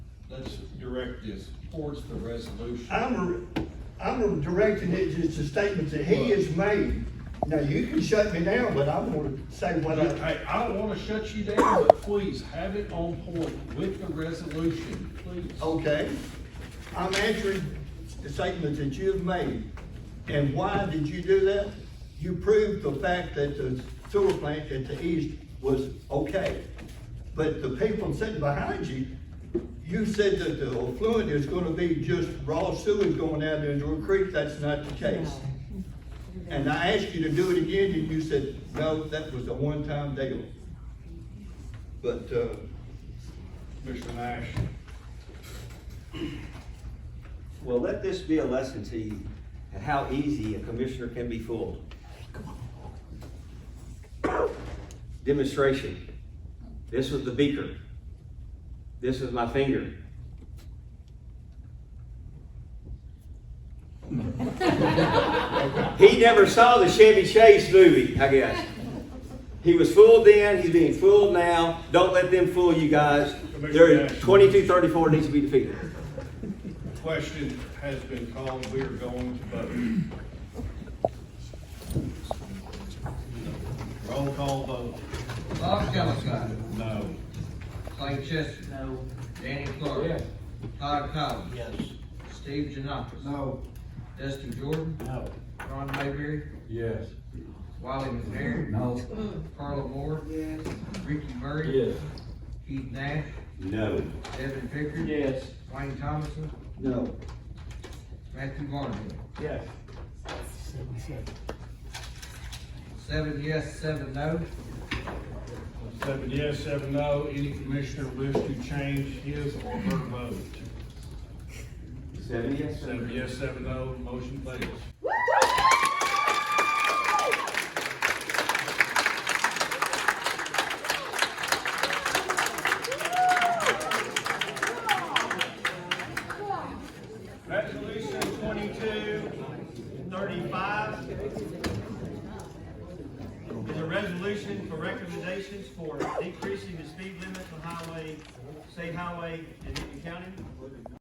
direct this towards the resolution. I'm, I'm directing it just to statements that he has made. Now, you can shut me down, but I'm gonna say what I, Hey, I don't wanna shut you down, but please have it on point with the resolution, please. okay? I'm answering the statements that you have made. And why did you do that? You proved the fact that the sewer plant at the east was okay. But the people sitting behind you, you said that the effluent is gonna be just raw sewage going out into a creek. That's not the case. And I asked you to do it again, and you said, no, that was a one-time deal. But, uh, Mr. Nash, Well, let this be a lesson to you, how easy a commissioner can be fooled. Demonstration. This was the beaker. This is my finger. He never saw the Chevy Chase movie, I guess. He was fooled then, he's being fooled now. Don't let them fool you guys. There, twenty-two thirty-four needs to be defeated. the question has been called, we are going to vote. Roll call vote. Bob Scott, No. Clay Chester. No. Danny Clark. Yes. Todd Collins. Yes. Steve Janakis. No. Dustin Jordan. No. Ron Mayberry. Yes. Wiley McNair. No. Carla Moore. Ricky Murray. Keith Nash. No. Devin Pickard. Yes. Wayne Thomason. no, Matthew Barnhill. Yes. Seven yes, seven no. Seven yes, seven no. Any commissioner wish to change his or her vote? Seven yes, Seven yes, seven no, motion fails. Resolution twenty-two thirty-five is a resolution for recommendations for decreasing the speed limit on highway, state highway in Newton County.